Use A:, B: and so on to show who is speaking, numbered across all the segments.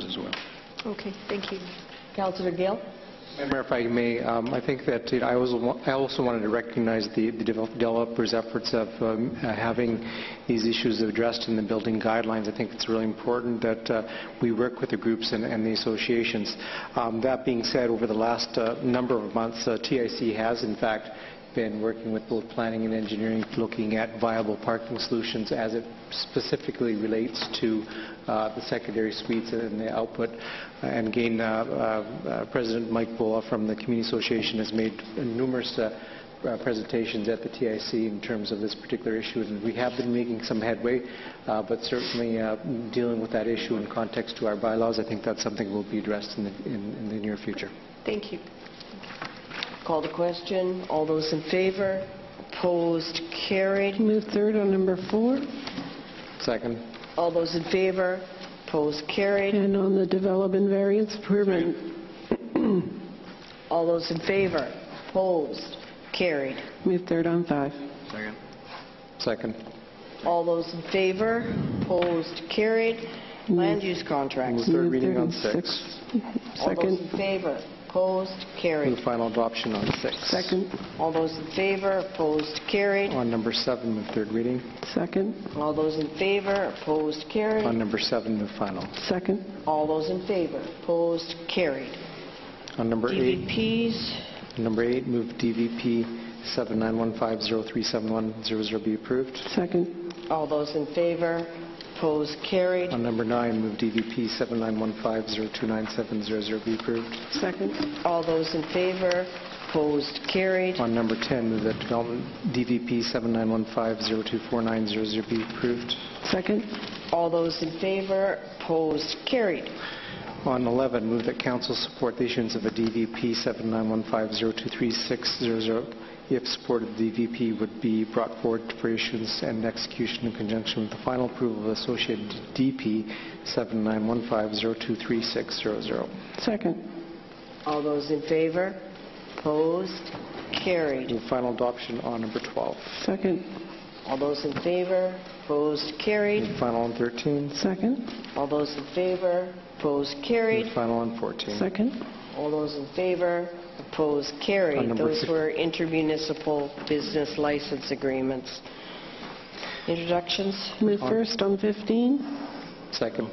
A: Mr. Webb.
B: Okay, thank you.
C: Councillor Gill?
D: Madam Mayor, if I may, um, I think that you know, I also wa- I also wanted to recognize the the develop- developers' efforts of um, uh, having these issues addressed in the building guidelines. I think it's really important that uh, we work with the groups and- and the associations. Um, That being said, over the last uh, number of months, uh, TIC has in fact been working with both planning and engineering, looking at viable parking solutions as it specifically relates to uh, the secondary suites and the output. And again, uh, uh, uh, President Mike Bola from the Community Association has made numerous uh, uh, presentations at the TIC in terms of this particular issue, and we have been making some headway, uh, but certainly uh, dealing with that issue in context to our bylaws, I think that's something will be addressed in the in- in the near future.
B: Thank you.
C: Call the question. All those in favor? Opposed? Carried.
E: Move third on number four,
D: Second.
C: All those in favor? Opposed? Carried.
E: and on the development variance permit.
C: All those in favor? Opposed? Carried.
E: Move third on five.
A: Second.
D: Second.
C: All those in favor? Opposed? Carried. Land use contracts.
D: Move third
E: Move
D: reading on
E: third
D: six.
C: All those
E: Second,
C: in favor? Opposed?
D: Move
C: Carried.
D: final adoption on six.
E: second,
C: All those in favor? Opposed? Carried.
D: On number seven, move third reading.
E: second,
C: All those in favor? Opposed?
D: On
C: Carried.
D: number seven, move final.
E: second,
C: All those in favor? Opposed? Carried.
D: On number eight,
C: DVPs.
D: number eight, move DVP 7915037100 be approved.
E: second,
C: All those in favor? Opposed? Carried.
D: On number nine, move DVP 7915029700 be approved.
E: second,
C: All those in favor? Opposed? Carried.
D: On number 10, move that development DVP 7915024900 be approved.
E: second,
C: All those in favor? Opposed? Carried.
D: On 11, move that council support the issuance of a DVP 7915023600. If supported, the DVP would be brought forward for issuance and execution in conjunction with the final approval of associated DP 7915023600.
E: second,
C: All those in favor? Opposed? Carried.
D: Move final adoption on number 12.
E: second,
C: All those in favor? Opposed? Carried.
D: Move final on 13.
E: second,
C: All those in favor? Opposed?
D: Move
C: Carried.
D: final on 14.
E: second,
C: All those in favor? Opposed? Carried.
D: On number
C: Those
D: fif-
C: were intermunicipal business license agreements. Introductions?
E: move first on 15,
D: Second.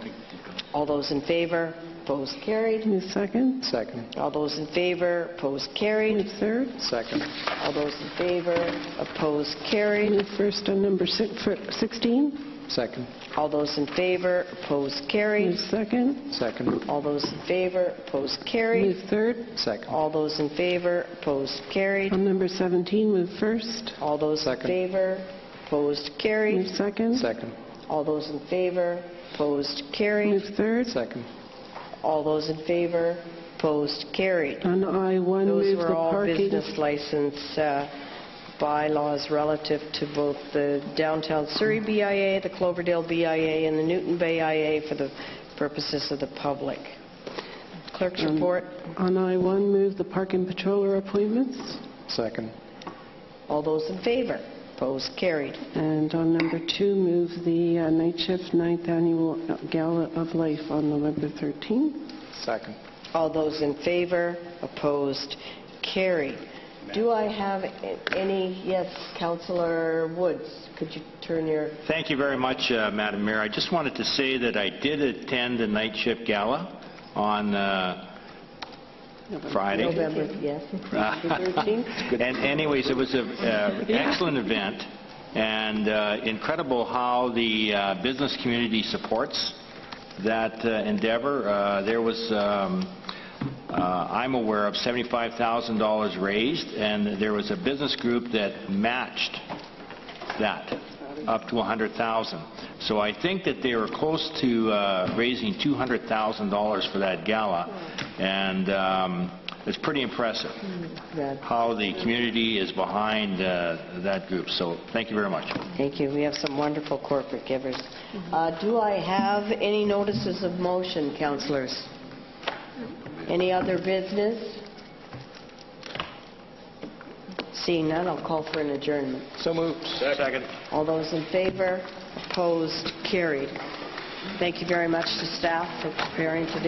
C: All those in favor? Opposed? Carried.
E: move second,
D: Second.
C: All those in favor? Opposed? Carried.
E: move third,
D: Second.
C: All those in favor? Opposed? Carried.
E: move first on number six, for 16,
D: Second.
C: All those in favor? Opposed? Carried.
E: move second,
D: Second.
C: All those in favor, opposed,
E: move
C: carried.
E: third,
D: Second.
C: All those in favor, opposed, carried.
E: on number 17, move first,
C: All those in
D: Second.
C: favor, opposed,
E: move
C: carried.
E: second,
D: Second.
C: All those in favor, opposed,
E: move
C: carried.
E: third,
D: Second.
C: All those in favor, opposed, carried.
E: on I-1,
C: Those
E: move the
C: were all
E: parking.
C: business license uh, bylaws relative to both the downtown Surrey BIA, the Cloverdale BIA, and the Newton Bay IA for the purposes of the public. Clerk's
E: Mm.
C: report.
E: On I-1, move the park and patroller appointments.
D: Second.
C: All those in favor, opposed, carried.
E: And on number two, move the uh, night shift, ninth annual gala of life on November 13th.
D: Second.
C: All those in favor, opposed, carried. Do I have a- any, yes, Councillor Woods, could you turn your,
F: Thank you very much, uh, Madam Mayor. I just wanted to say that I did attend the night shift gala on uh, Friday.
C: November, yes, the 13th?
F: And anyways, it was an excellent event, and uh, incredible how the uh, business community supports that uh, endeavor. Uh, There was, um, uh, I'm aware of, $75,000 raised, and there was a business group that matched that, up to 100,000. So I think that they were close to uh, raising $200,000 for that gala, and um, it's pretty impressive
C: That-
F: how the community is behind uh, that group. So thank you very much.
C: Thank you, we have some wonderful corporate givers. Uh, Do I have any notices of motion, councillors? Any other business? Seeing none, I'll call for an adjournment.
D: So moved.
F: Second.
C: All those in favor, opposed, carried. Thank you very much to staff for preparing today.